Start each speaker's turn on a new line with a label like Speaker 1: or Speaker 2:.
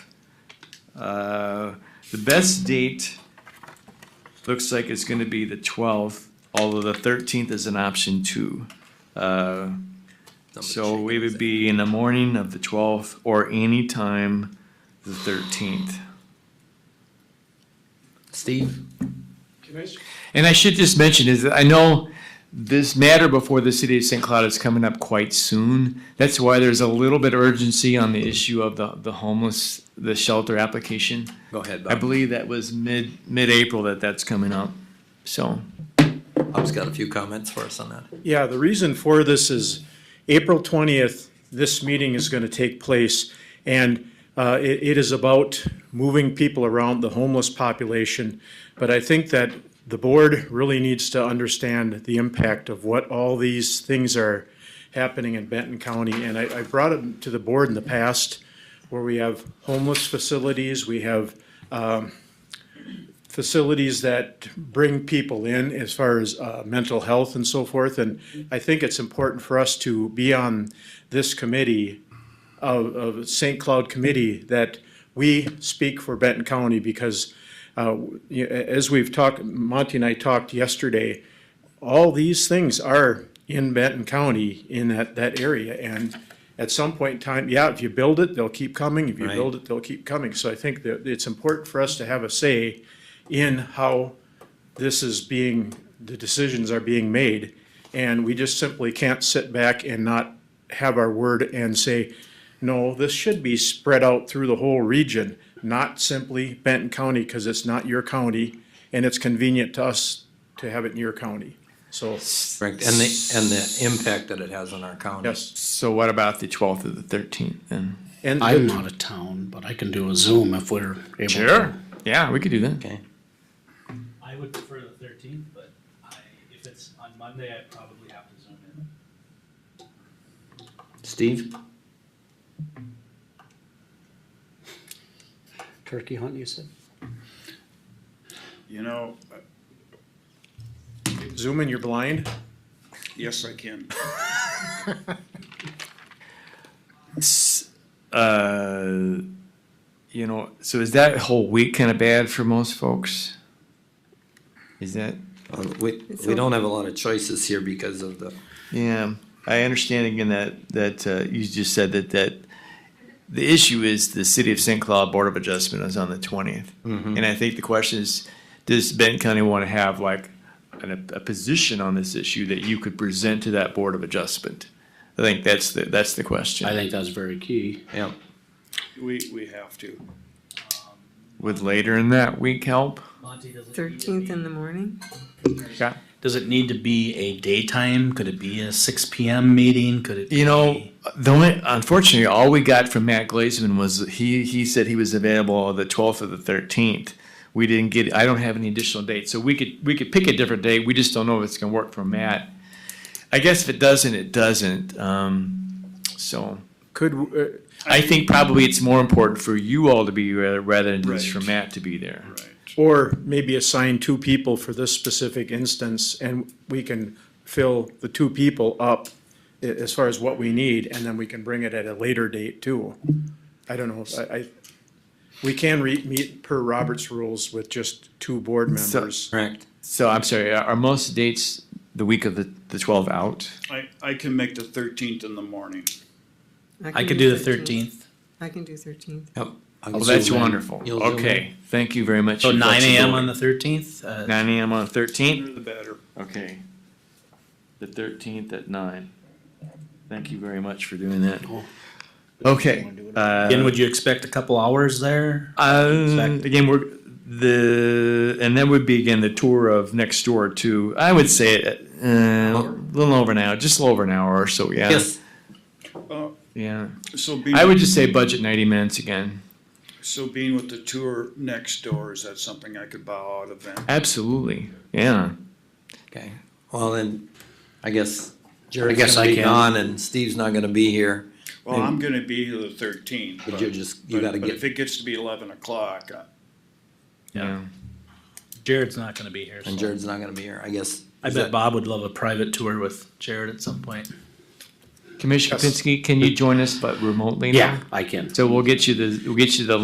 Speaker 1: Uh, The best date looks like it's gonna be the twelfth, although the thirteenth is an option too. Uh, So we would be in the morning of the twelfth or any time the thirteenth.
Speaker 2: Steve?
Speaker 3: Can I, s-
Speaker 1: And I should just mention is that I know this matter before the city of St. Cloud is coming up quite soon. That's why there's a little bit of urgency on the issue of the, the homeless, the shelter application.
Speaker 2: Go ahead,
Speaker 1: I
Speaker 2: Bob.
Speaker 1: believe that was mid, mid-April that that's coming up. So,
Speaker 2: Bob's got a few comments for us on that.
Speaker 3: yeah, the reason for this is April twentieth, this meeting is gonna take place. And, uh, it, it is about moving people around the homeless population. But I think that the board really needs to understand the impact of what all these things are happening in Benton County. And I, I brought it to the board in the past where we have homeless facilities, we have facilities that bring people in as far as uh, mental health and so forth. And I think it's important for us to be on this committee of, of St. Cloud Committee that we speak for Benton County because uh, you- as we've talked, Monty and I talked yesterday, all these things are in Benton County in that, that area. And at some point in time, yeah, if you build it, they'll keep coming. If you
Speaker 2: Right.
Speaker 3: build it, they'll keep coming. So I think that it's important for us to have a say in how this is being, the decisions are being made. And we just simply can't sit back and not have our word and say, no, this should be spread out through the whole region, not simply Benton County, because it's not your county, and it's convenient to us to have it in your county. So,
Speaker 2: Correct, and the, and the impact that it has on our county.
Speaker 3: yes.
Speaker 1: so what about the twelfth or the thirteenth then?
Speaker 3: And
Speaker 4: I'm out of town, but I can do a Zoom if we're able. to.
Speaker 1: Yeah, we could do that.
Speaker 2: Okay,
Speaker 5: I would prefer the thirteenth, but I, if it's on Monday, I probably have to zoom in.
Speaker 2: Steve?
Speaker 4: Turkey hunt, you said?
Speaker 6: You know,
Speaker 3: Zoom in, you're blind.
Speaker 6: yes, I can.
Speaker 1: S- Uh, you know, so is that whole week kind of bad for most folks? Is that?
Speaker 2: Uh, We, we don't have a lot of choices here because of the,
Speaker 1: Yeah, I understand again that, that uh, you just said that, that the issue is the City of St. Cloud Board of Adjustment is on the 20th. And I think the question is, does Benton County want to have like an, a position on this issue that you could present to that Board of Adjustment? I think that's the, that's the
Speaker 4: I
Speaker 1: question.
Speaker 4: think that's very key.
Speaker 2: yeah,
Speaker 6: We, we have to.
Speaker 1: Would later in that week help?
Speaker 5: Monty doesn't.
Speaker 7: Thirteenth in the morning?
Speaker 1: Yeah.
Speaker 5: Does it need to be a daytime? Could it be a six P M meeting? Could it?
Speaker 1: You know, the only, unfortunately, all we got from Matt Glazeman was he, he said he was available the twelfth or the thirteenth. We didn't get, I don't have any additional dates, so we could, we could pick a different date, we just don't know if it's gonna work for Matt. I guess if it doesn't, it doesn't, um, so.
Speaker 3: Could, uh,
Speaker 1: I think probably it's more important for you all to be there rather than just for
Speaker 6: Right.
Speaker 1: Matt to be there.
Speaker 6: Right.
Speaker 3: or maybe assign two people for this specific instance, and we can fill the two people up a- as far as what we need, and then we can bring it at a later date too. I don't know, I, I, we can re, meet per Robert's rules with just two board
Speaker 1: So-
Speaker 3: members.
Speaker 2: correct.
Speaker 1: So I'm sorry, are are most dates the week of the, the twelve out?
Speaker 6: I, I can make the thirteenth in the morning.
Speaker 5: I could do the thirteenth,
Speaker 7: I can do thirteenth.
Speaker 2: Yep.
Speaker 1: Well,
Speaker 2: I'll
Speaker 1: that's
Speaker 2: zoom in.
Speaker 1: wonderful,
Speaker 2: You'll zoom in.
Speaker 1: okay, thank you very much.
Speaker 5: so
Speaker 1: for
Speaker 5: nine AM
Speaker 1: flexibility.
Speaker 5: on the thirteenth, uh,
Speaker 1: Nine AM on thirteenth?
Speaker 6: Sooner the better.
Speaker 1: Okay. The thirteenth at nine. Thank you very much for doing that. Okay.
Speaker 5: again,
Speaker 1: Uh,
Speaker 5: would you expect a couple hours there?
Speaker 1: uh, again, we're, the, and then would be again the tour of next door to, I would say, uh, a little over an hour, just a little over an hour or so, yeah.
Speaker 2: Yes,
Speaker 6: Uh,
Speaker 1: Yeah.
Speaker 6: So being,
Speaker 1: I would just say budget ninety minutes again.
Speaker 6: so being with the tour next door, is that something I could bow out of then?
Speaker 1: Absolutely. Yeah.
Speaker 2: okay, well, then, I guess
Speaker 4: I
Speaker 2: Jared's
Speaker 4: guess
Speaker 2: gonna
Speaker 4: I
Speaker 2: be
Speaker 4: can.
Speaker 2: gone and Steve's not gonna be here.
Speaker 6: Well, I'm gonna be here the thirteenth.
Speaker 2: But you just- you gotta
Speaker 6: But
Speaker 2: get-
Speaker 6: if it gets to be eleven o'clock, uh,
Speaker 5: Yeah. Jared's not gonna be here,
Speaker 2: And
Speaker 5: so
Speaker 2: Jared's not gonna be here, I guess.
Speaker 5: I
Speaker 2: Is
Speaker 5: bet
Speaker 2: that-
Speaker 5: Bob would love a private tour with Jared at some point.
Speaker 1: Commissioner
Speaker 3: Yes.
Speaker 1: Kapinski, can you join us but remotely now?
Speaker 4: I can.
Speaker 1: So we'll get you the, we'll get you the